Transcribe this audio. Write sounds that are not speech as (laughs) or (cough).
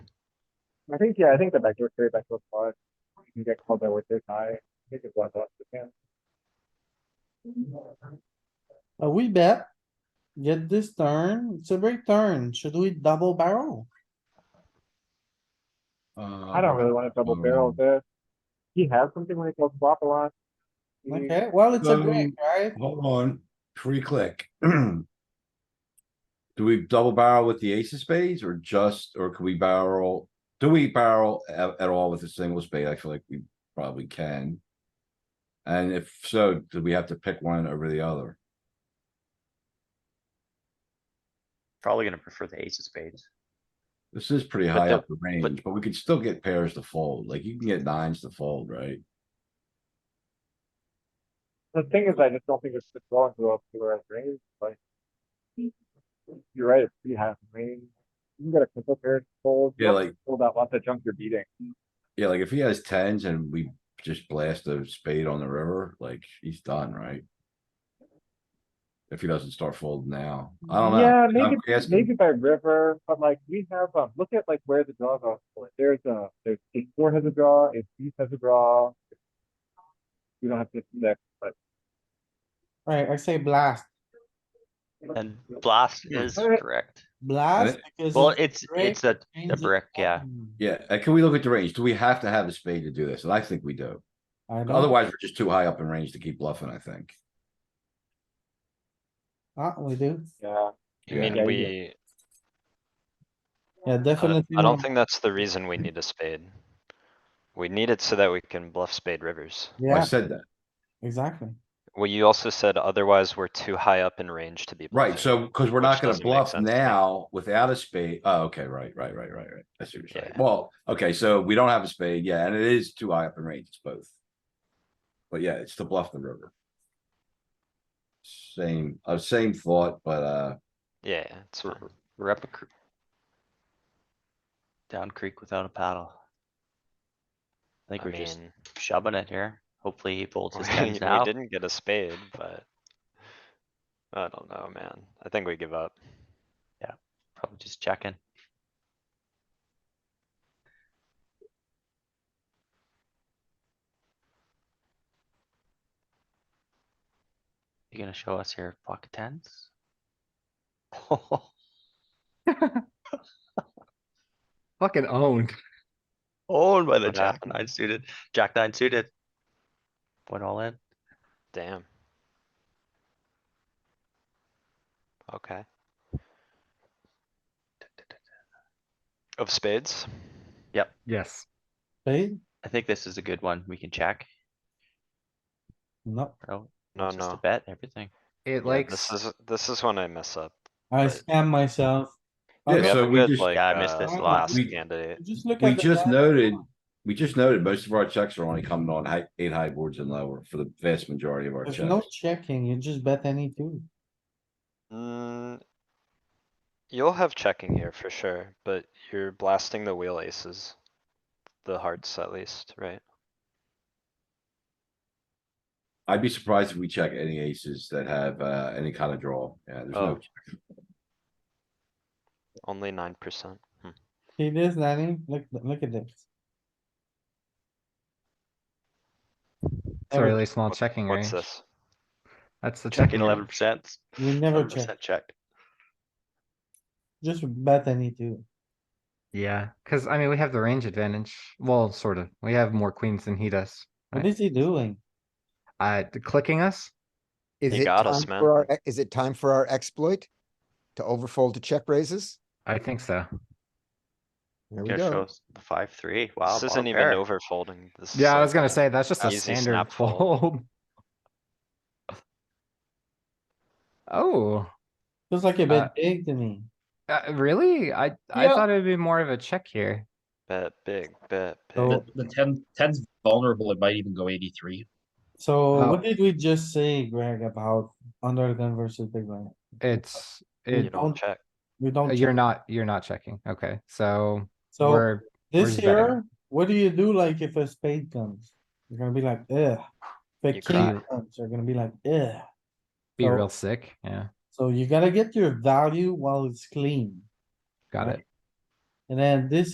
I think, yeah, I think the backdoor three, backdoor five, you can get called there with this high, I think it blinds off the hand. Uh, we bet. Get this turn. It's a big turn. Should we double barrel? Uh, I don't really wanna double barrel Um, this. He has something when he calls flop a lot. He- Okay, well, it's a brick, Mm. Um, right? Hold on, free click. (clears throat) Do we double barrel with the ace of spades or just, or can we barrel? Do we barrel at, at all with a single spade? I feel like we probably can. And if so, do we have to pick one over the other? Probably gonna prefer the ace of spades. This is pretty But high the- up the range, but we could still get pairs to fold, like you can get nines to fold, right? The thing is, I just don't think it's the drawing to up to where it's range, like. You're right, it's pretty half range. You can get a couple pairs fold. Yeah, like- Hold out lots of junk you're beating. Yeah, like if he has tens and we just blast a spade on the river, like he's done, right? If he doesn't start folding now, I don't know. Yeah, I'm maybe, asking. maybe by river, but like we have, um, look at like where the draws are. Like, There's a, there's eight four has a draw, eight beast has a draw. We don't have to next, but. Right, I say blast, And blast Yeah. is Alright. correct. blast because. Well, it it's, brick it's a, a changes brick, yeah. everything. Yeah, and can we look at the range? Do we have to have a spade to do this? And I think we do. I don't- Otherwise, we're just too high up in range to keep bluffing, I think. Ah, we do. Yeah, I Yeah. Yeah, mean, you- we, Yeah, I don't- definitely. I not. don't think that's the reason we need a spade. We need it so that we can bluff spade rivers. I Yeah, said that, exactly. Well, you also said otherwise we're too high up in range to be. right? bluffing. So, cuz we're not Which gonna doesn't make bluff sense to me. now without a spade. Oh, okay, right, right, right, right, right. I see what you're saying. Yeah. Well, okay, so we don't have a spade, yeah, and it is too high up in range, it's both. But yeah, it's to bluff the river. Same, uh, same thought, but, uh, Yeah, yeah, it's fine. We're up a cr- Down creek without a paddle. I think I we're just mean, (laughs) shoving it here. Hopefully he folds his we we hands out. didn't get a spade, but. I don't know, man. I think we give up. Probably just checking. You gonna show us your pocket tens? (laughs) Fucking owned. Owned by the What jack happened? nine suited, jack nine suited. Went all in. Damn. Okay. Of spades? Yes. Spade? I think this is a good one. We can check. No, Oh, No, just a no. bet, everything. It Yeah, This likes, is, this is when I mess up. I Right. scam myself. yeah, Okay, so we just. Like, Yeah, I missed uh, this last last. we- candidate. Just look at. We the just draw. noted, we just noted most of our checks are only coming on high, eight high boards and lower for the vast majority of our There's no checks. checking, you just bet any two. Mm, You'll have checking here for sure, but you're blasting the wheel aces. The hearts at least, right? I'd be surprised if we check any aces that have, uh, any kind of draw. Yeah, there's Oh. no, Only nine percent. See this, Danny? Look, look at this. it's a really small checking What's range. this? That's the Checking checking. eleven range. percent. We never check, percent checked. just bet any two. Yeah, cuz I mean, we have the range advantage. Well, sort of. We have more queens than he does. What Right. is he doing? Uh, the clicking us? Is You it got us, time man. for our, is it time for our exploit? To overfold to check raises? I think so. There we Yeah, go. shows the five, three. Wow. This isn't bottom even pair. over folding. This is Yeah, I like was gonna a- say, that's just a easy standard snap fold. fold. Oh, Feels like a Uh, bit big to me. uh, really? I, I Yeah. thought it'd be more of a check here. Bet big, bet big. Oh, So, The, the ten, ten's vulnerable, it might even go eighty-three. so Oh. what did we just say, Greg, about under the gun versus big blind? It's, You it, uh, don't don't- check. We don't, you're check. not, you're not checking. Okay, so so we're this we're betting. here, what do you do like if a spade comes? You're gonna be like, ugh. If a king You cry. comes, you're gonna be like, ugh. be So- real sick. Yeah, So you gotta get your value while it's clean. got Right. it. And then this